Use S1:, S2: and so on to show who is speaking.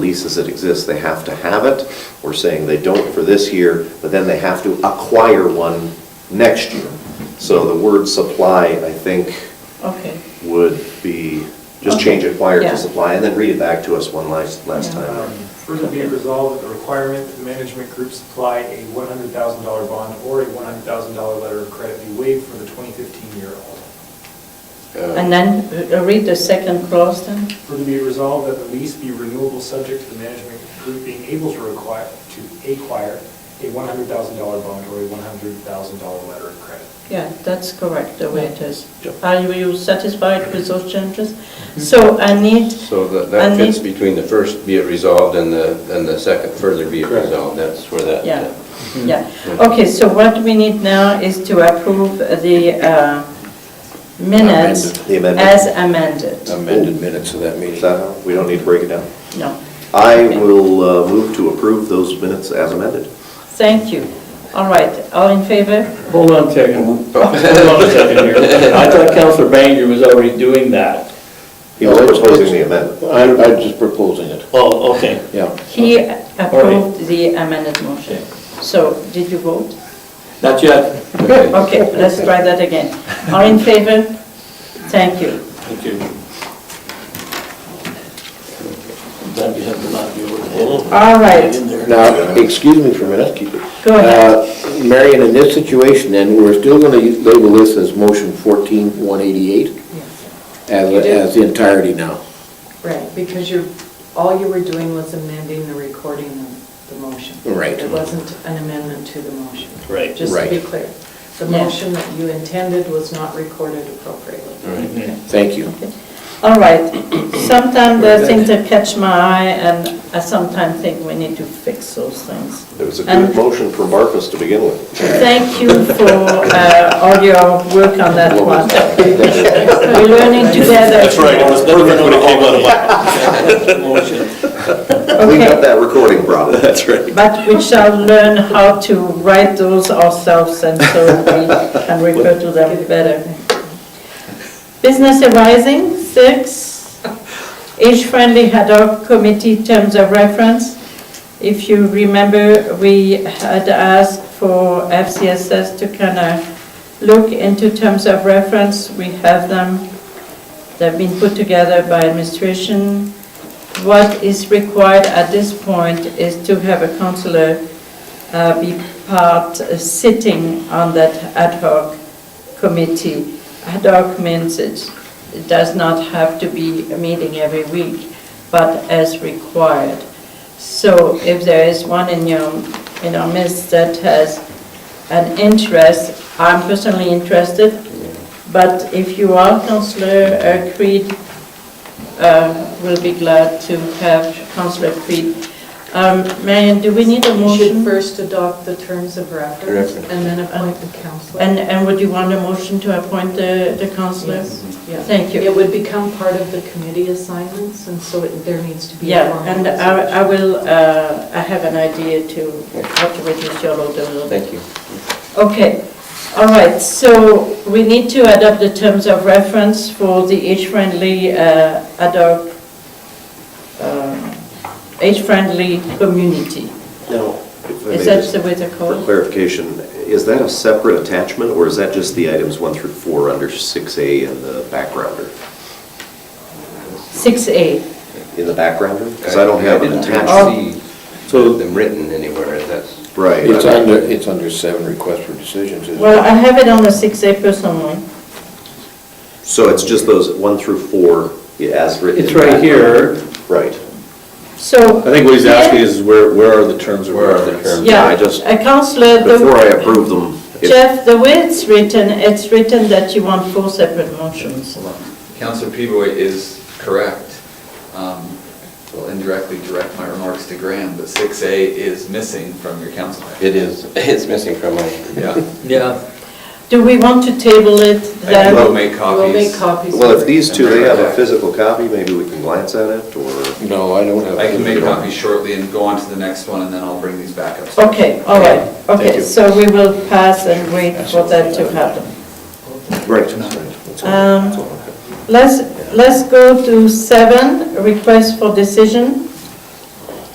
S1: leases that exist, they have to have it. We're saying they don't for this year, but then they have to acquire one next year. So the word supply, I think,
S2: Okay,
S1: would be, just change acquire
S2: Yeah.
S1: to supply, and then read it back to us one last, last
S2: Yeah.
S1: time.
S3: Further Um, be it resolved that the requirement that the management group supply a $100,000 bond or a $100,000 letter of credit be waived for the 2015 year also.
S2: and then uh, read the second clause then?
S3: Further be it resolved that the lease be renewable subject to the management group being able to require, to acquire a $100,000 bond or a $100,000 letter of credit.
S2: Yeah, that's correct, the way it is.
S1: Yeah.
S2: Are you satisfied with those changes? So I need,
S4: So that
S2: I
S4: that fits
S2: need-
S4: between the first be it resolved and the, and the second further be it
S1: Correct.
S4: resolved. That's where that.
S2: Yeah.
S4: uh,
S2: yeah, okay, so what we need now is to approve the uh, minutes
S1: The amendment.
S2: as amended.
S5: amended minutes of that meeting.
S1: Is that how, we don't need to break it down?
S2: No,
S1: I will uh, move to approve those minutes as amended.
S2: thank you. All right, all in favor?
S6: Hold on a second. Hold on a second here. I thought Counselor Banger was already doing that.
S1: He was proposing the amendment.
S5: I'm, I'm just proposing it,
S6: Oh, okay.
S5: yeah.
S2: He approved the amended motion. So did you vote?
S6: Not yet.
S4: okay.
S2: Okay, let's try that again. All in favor? Thank you.
S6: Thank you. Sometimes you have to knock your head
S2: All right,
S6: in there.
S5: Now, excuse me for a minute, keep it.
S2: Go
S5: Uh, Marion, in this situation then, we're still going to label this as motion 14188 as,
S7: You do.
S5: as the entirety now.
S7: Right, because you're, all you were doing was amending the recording of the motion.
S5: Right.
S7: It wasn't an amendment to the motion.
S6: Right.
S7: Just to be
S5: Right.
S7: clear. The
S2: Yeah.
S7: motion that you intended was not recorded appropriately.
S5: Thank you.
S2: all right. Sometimes there are things that catch my eye, and I sometimes think we need to fix those things.
S1: It was a
S2: And-
S1: good motion from Marcus to begin with.
S2: Thank you for uh, all your work on that one. We're learning together.
S6: That's right, it was perfect when it came out of my motion.
S1: We got
S2: Okay,
S1: that recording problem. That's right.
S2: but we shall learn how to write those ourselves, and so we can refer to them better. Business arising, six, age-friendly ad hoc committee terms of reference. If you remember, we had asked for FCSS to kind of look into terms of reference. We have them, they've been put together by administration. What is required at this point is to have a counselor uh, be part, uh, sitting on that ad hoc committee. Ad hoc means it's- it does not have to be a meeting every week, but as required. So if there is one in your, in our midst that has an interest, I'm personally interested, but if you are, Counselor uh, Creed, uh, will be glad to have Counselor Creed. Um, Marion, do we need a
S7: You should
S2: motion?
S7: first adopt the terms of reference
S4: Reference.
S7: and then appoint the counselor.
S2: And, and would you want a motion to appoint the, the counselor?
S7: Yes, yeah.
S2: Thank you.
S7: It would become part of the committee assignments, and so it- there needs to be a
S2: Yeah, and
S7: formal...
S2: I, I will, uh, I have an idea to, how to reduce your load a little bit.
S4: Thank you.
S2: Okay, all right, so we need to adopt the terms of reference for the age-friendly, uh, ad hoc, um, age-friendly community.
S1: Now, if I may
S2: Is that
S1: just-
S2: the way they're
S1: For
S2: called?
S1: clarification, is that a separate attachment, or is that just the items one through four under 6A in the backgrounder?
S2: 6A.
S1: In the backgrounder? Because I don't have an
S4: didn't
S1: attachment.
S4: see them written anywhere, that's.
S1: Right.
S5: It's under, it's under seven requests for decisions, isn't it?
S2: Well, I have it on the 6A personally.
S1: So it's just those one through four as written?
S8: It's
S1: in the
S8: right here.
S1: background. Right.
S2: So.
S8: I think what he's asking is where, where are the terms of
S4: Where are the
S8: reference?
S4: terms?
S2: Yeah,
S1: I just-
S2: a counselor, the-
S1: Before I approve them, if
S2: Jeff, the way it's written, it's written that you want four separate motions.
S9: Counselor Pivoy is correct. Um, Will indirectly direct my remarks to Graham, but 6A is missing from your council. packet.
S4: It is, it's missing from my.
S9: Yeah.
S6: Yeah.
S2: Do we want to table it
S9: I
S2: then?
S9: will make copies.
S7: We'll make copies.
S1: Well, if these two, they have a physical copy, maybe we can glance at it, or?
S5: No, I don't have.
S9: I can make copies shortly and go on to the next one, and then I'll bring these back up.
S2: Okay, all right,
S5: Thank
S2: okay,
S5: you.
S2: so we will pass and wait for that to happen.
S5: Right. That's all.
S2: Um,
S5: That's all.
S2: Let's, let's go to seven, request for decision.